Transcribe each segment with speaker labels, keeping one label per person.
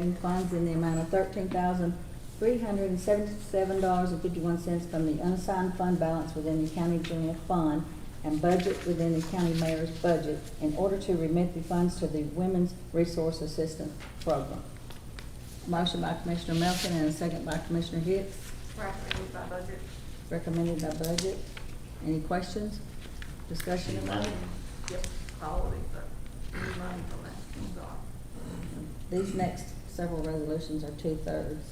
Speaker 1: in funds in the amount of thirteen thousand, three hundred and seventy-seven dollars and fifty-one cents from the unsigned fund balance within the county general fund and budget within the county mayor's budget in order to remit the funds to the Women's Resource Assistance Program. Motion by Commissioner Melton and a second by Commissioner Hicks,
Speaker 2: Recommended by budget.
Speaker 1: recommended by budget. Any questions? Discussion
Speaker 2: Any
Speaker 1: of
Speaker 2: money?
Speaker 1: motion?
Speaker 2: Yep, all of it, but any money from that comes off.
Speaker 1: These next several resolutions are two-thirds.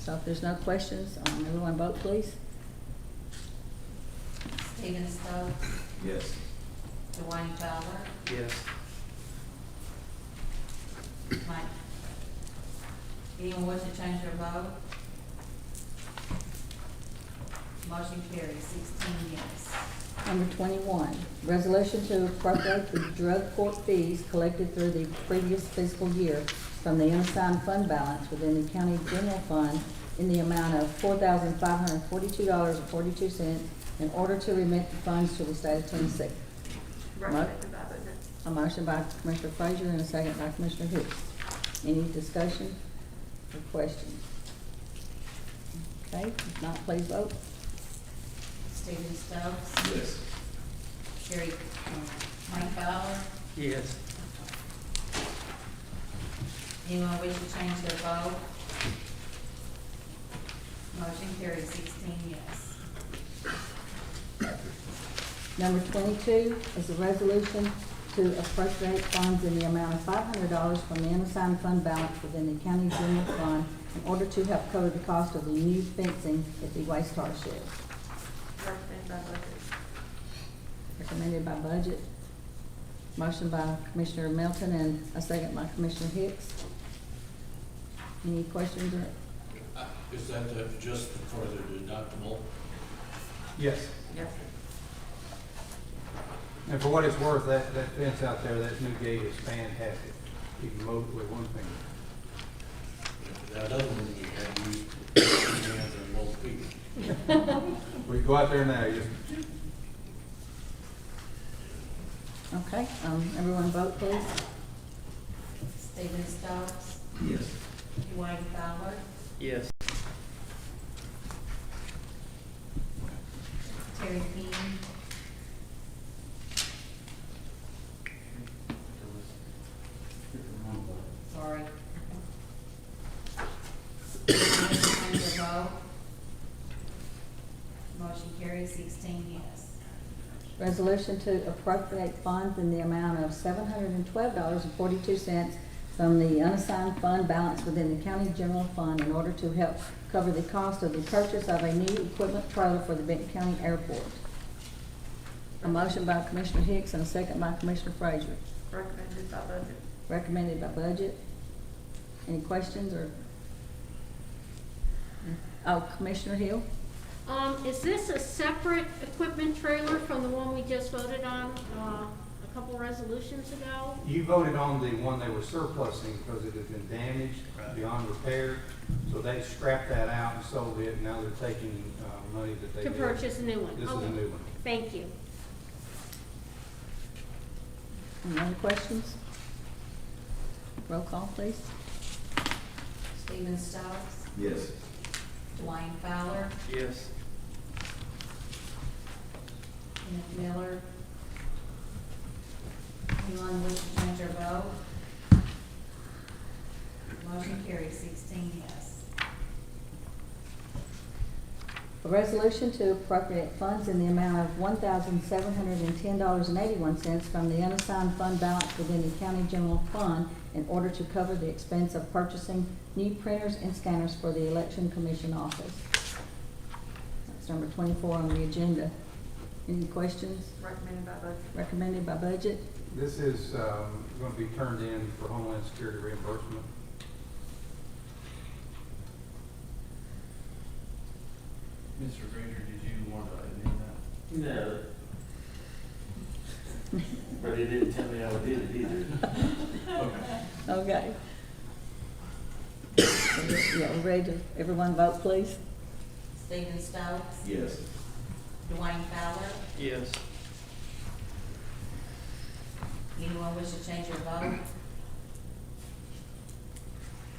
Speaker 1: So if there's no questions, um, everyone vote please.
Speaker 3: Stephen Stokes,
Speaker 4: Yes.
Speaker 3: Dwayne Fowler,
Speaker 4: Yes.
Speaker 3: Mike. Anyone wish to change their vote? Motion carries sixteen yes.
Speaker 1: Number twenty-one, resolution to appropriate the drug court fees collected through the previous fiscal year from the unassigned fund balance within the county general fund in the amount of four thousand five hundred forty-two dollars and forty-two cents in order to remit the funds to the state of Tennessee.
Speaker 2: Recommended by budget.
Speaker 1: A motion by Commissioner Frazier and a second by Commissioner Hicks. Any discussion or questions? Okay, if not, please vote.
Speaker 3: Stephen Stokes,
Speaker 4: Yes.
Speaker 3: Sherry, um, Mike Fowler,
Speaker 4: Yes.
Speaker 3: anyone wish to change their vote? Motion carries sixteen yes.
Speaker 1: Number twenty-two is a resolution to appropriate funds in the amount of five hundred dollars from the unassigned fund balance within the county general fund in order to help cover the cost of the new fencing at the waste hard shed.
Speaker 2: Recommended by budget.
Speaker 1: Recommended by budget. Motion by Commissioner Melton and a second by Commissioner Hicks. Any questions or
Speaker 5: Ah, Is that the- just for the deductible?
Speaker 6: Yes,
Speaker 2: Yes.
Speaker 6: and for what it's worth, that, that fence out there, that new gate is fantastic. You can mow it with one finger.
Speaker 5: That other one you had, you, you had the little people.
Speaker 6: We go out there now, you
Speaker 1: Okay, um, everyone vote please.
Speaker 3: Stephen Stokes,
Speaker 4: Yes.
Speaker 3: Dwayne Fowler,
Speaker 4: Yes.
Speaker 3: Terry Keane, sorry. Anyone wish to change their vote? Motion carries sixteen yes.
Speaker 1: Resolution to appropriate funds in the amount of seven hundred and twelve dollars and forty-two cents from the unassigned fund balance within the county general fund in order to help cover the cost of the purchase of a new equipment trailer for the Benton County Airport. A motion by Commissioner Hicks and a second by Commissioner Frazier,
Speaker 2: Recommended by budget.
Speaker 1: recommended by budget. Any questions or? Oh, Commissioner Hill?
Speaker 7: Um, is this a separate equipment trailer from the one we just voted on, uh, a couple resolutions ago?
Speaker 6: You voted on the one they were surplusing because it had been damaged beyond repair. So they scrapped that out and sold it, now they're taking, uh, money that they.
Speaker 7: To
Speaker 6: did.
Speaker 7: purchase a new one?
Speaker 6: This is a
Speaker 7: Okay.
Speaker 6: new one.
Speaker 7: Thank you.
Speaker 1: Any other questions? Roll call, please.
Speaker 3: Stephen Stokes,
Speaker 4: Yes.
Speaker 3: Dwayne Fowler,
Speaker 4: Yes.
Speaker 3: Kenneth Miller. Anyone wish to change their vote? Motion carries sixteen yes.
Speaker 1: A resolution to appropriate funds in the amount of one thousand seven hundred and ten dollars and eighty-one cents from the unassigned fund balance within the county general fund in order to cover the expense of purchasing new printers and scanners for the election commission office. That's number twenty-four on the agenda. Any questions?
Speaker 2: Recommended by budget.
Speaker 1: Recommended by budget.
Speaker 6: This is, um, gonna be turned in for Homeland Security reimbursement.
Speaker 8: Mr. Granger, did you want to amend that?
Speaker 9: No. But he didn't tell me I did it either.
Speaker 8: Okay.
Speaker 1: Okay. Yeah, we're ready to, everyone vote, please.
Speaker 3: Stephen Stokes,
Speaker 4: Yes.
Speaker 3: Dwayne Fowler,
Speaker 4: Yes.
Speaker 3: anyone wish to change their vote?